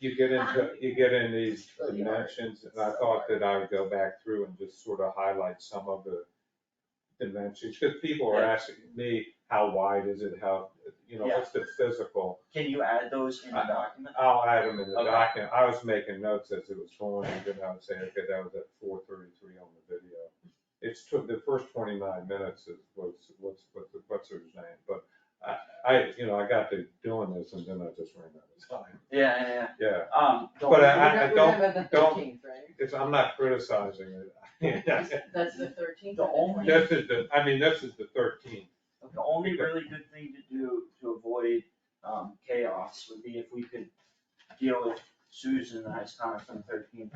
you get into, you get in these dimensions, and I thought that I would go back through and just sort of highlight some of the dimensions, because people are asking me, how wide is it, how, you know, what's the physical? Can you add those in the I- document? I'll add them in the Okay. document, I was making notes as it was going, and then I would say, okay, that was at four thirty-three on the video. It's took, the first twenty-nine minutes is what's, what's, what's, what's her name, but I, I, you know, I got to doing this, and then I just ran out of time, Yeah, yeah, yeah. yeah. Um, But uh, We're I- I- not- we're don't- not on the don't- 13th, right? It's, I'm not criticizing it. That's the thirteenth. The only- This is the, I mean, this is the thirteenth. the only really good thing to do to avoid, um, chaos would be if we could deal with Susan and I's comment from thirteen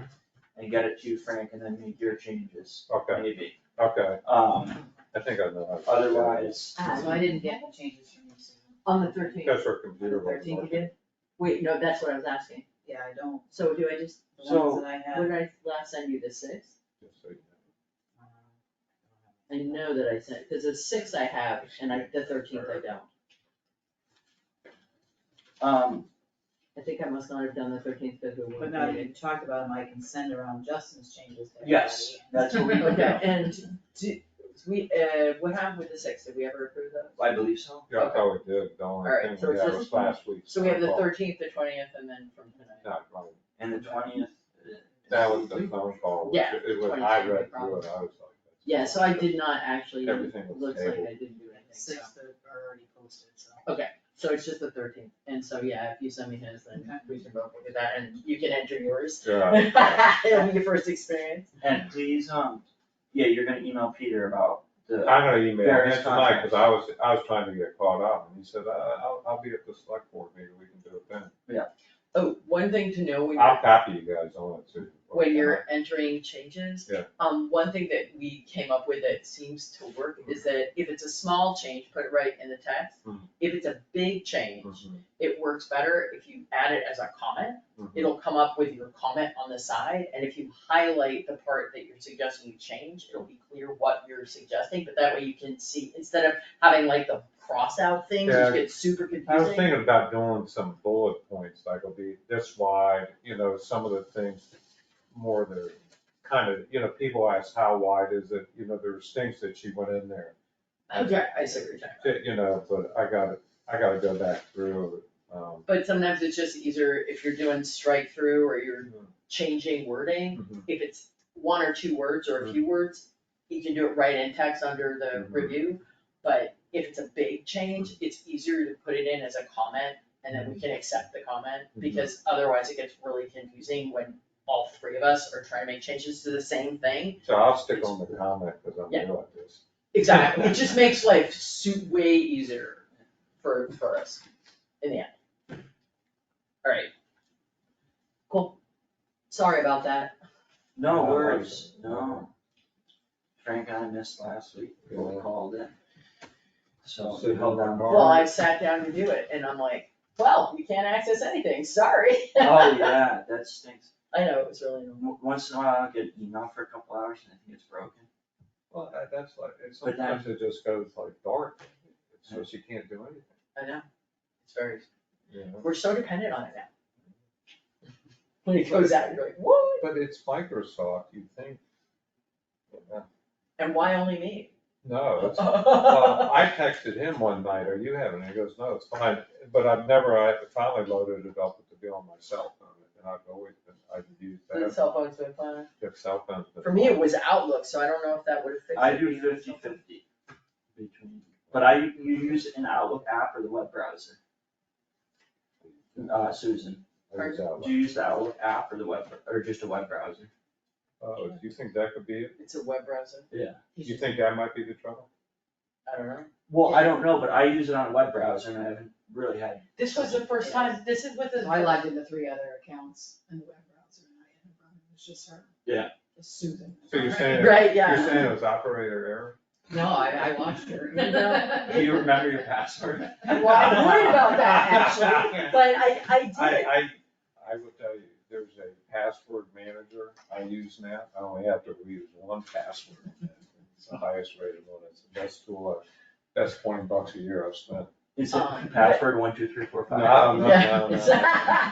and get it to Frank and then make your changes, Okay, maybe. okay, Um, I think I know. how to do that. otherwise, Ah, so I didn't get Changes from you, Susan. on the thirteenth, Because her on the computer wasn't thirteenth working. again? Wait, no, that's what I was asking. Yeah, I don't, So do I just, the ones that I have. what did I last send you, the sixth? Just so you know. Uh, I know that I sent, because the sixth I have and I, the thirteenth I don't. um, I think I must not have done the thirteenth because we were. But now that you talked about them, I can send around Justin's changes. to yes, that's what we would do. Okay, and do, we, uh, what happened with the sixth? Did we ever approve those? I believe so. Yeah, I thought we did, the only Alright, so thing we it's had was just- last week. So we have the thirteenth, the twentieth, and then from tonight. And the twentieth. That was the phone call, which Yeah, it was, 20, I no read through problem. it, I was like. Yeah, so I did not actually, looks Everything like I was didn't do tabled. anything, The so. Six that are already posted, so. So it's just the thirteenth, and so, yeah, if you send me his, then Okay. we can both look at that, and you can enter yours. Yeah. It'll be your first experience. And please, um, yeah, you're gonna email Peter about the, I'm gonna email him Various tonight, cause I was, I was trying to get caught up, and he said, uh, I'll, I'll be at the select board, maybe we can do it then. Oh, one thing to know when I'll you're, copy you guys on it too. when you're entering changes. Yeah. Um, one thing that we came up with that seems to work is that if it's a small change, put it right in the text. Mhm. If it's a big change, Mhm, it works better if you add it as a comment. mhm. It'll come up with your comment on the side, and if you highlight the part that you're suggesting you change, it'll be clear what you're suggesting, but that way you can see, instead of having like the cross-out things, Yeah. which gets super I was confusing. thinking about doing some bullet points, like it'll be this wide, you know, some of the things more the kind of, you know, people ask how wide is it, you know, there's things that she went in there. Okay, Oh, I see what you're talking about. that, You know, but I gotta, I gotta go back through, um. But sometimes it's just easier if you're doing strike through or you're changing wording, mhm, if it's one or two words or a few words, you can do it right in text under the Mhm. review. But if it's a big change, it's easier to put it in as a comment and then we can accept the comment Mhm. because otherwise it gets really confusing when all three of us are trying to make changes to the same thing. So I'll stick on the comment, cause I'm Yeah. new at this. Exactly, it just makes life su- way easier for, for us in the end. Alright. Cool. Sorry about that. no worries, no. Frank and I missed last week, when we called it. So we held down. Well, I sat down to do it and I'm like, well, we can't access anything, sorry. Oh, yeah, that stinks. I know, it was really annoying. W- Once in a while, I'll get an email for a couple hours and I think it's broken. Well, that- that's like, and But sometimes it just goes like dark, so she can't do anything, I know. It's very, you know? we're so dependent on it now. When it goes out, you're like, what? But it's Microsoft, you think. Yeah. And why only me? No, it's Well, I texted him one night, are you having, it?" he goes, no, it's fine, but I've never, I finally loaded it up to be on my cell phone, and I've always been, I've used The that, cell phone's been fine. if cell phones. For me, it was Outlook, so I don't know if that would have fixed it. I do fifty fifty between, but I, you use an Outlook app or the web browser? Uh, Susan, I use Outlook. do you use the Outlook app or the web, or just a web browser? Oh, do you think that could be, it? It's a web browser. Yeah. you think that might be the trouble? I don't know. Well, I don't know, but I use it on a web browser and I haven't really had, This was the first time, this is what the. So I logged into three other accounts in the web browser and I ended up, it was just her. Yeah. It's Susan. So you're saying, you're Right, yeah. saying it was operator error? No, I, I watched her. do you remember your password? Well, I'm worried about that actually, but I, I did. I, I, I will tell you, there's a password manager I use now, I only have to use one password. It's the highest rated one, it's the best tool, I- that's twenty bucks a year I've spent. Is Um, it password one, two, three, four, five? No, no, no, no. Yeah.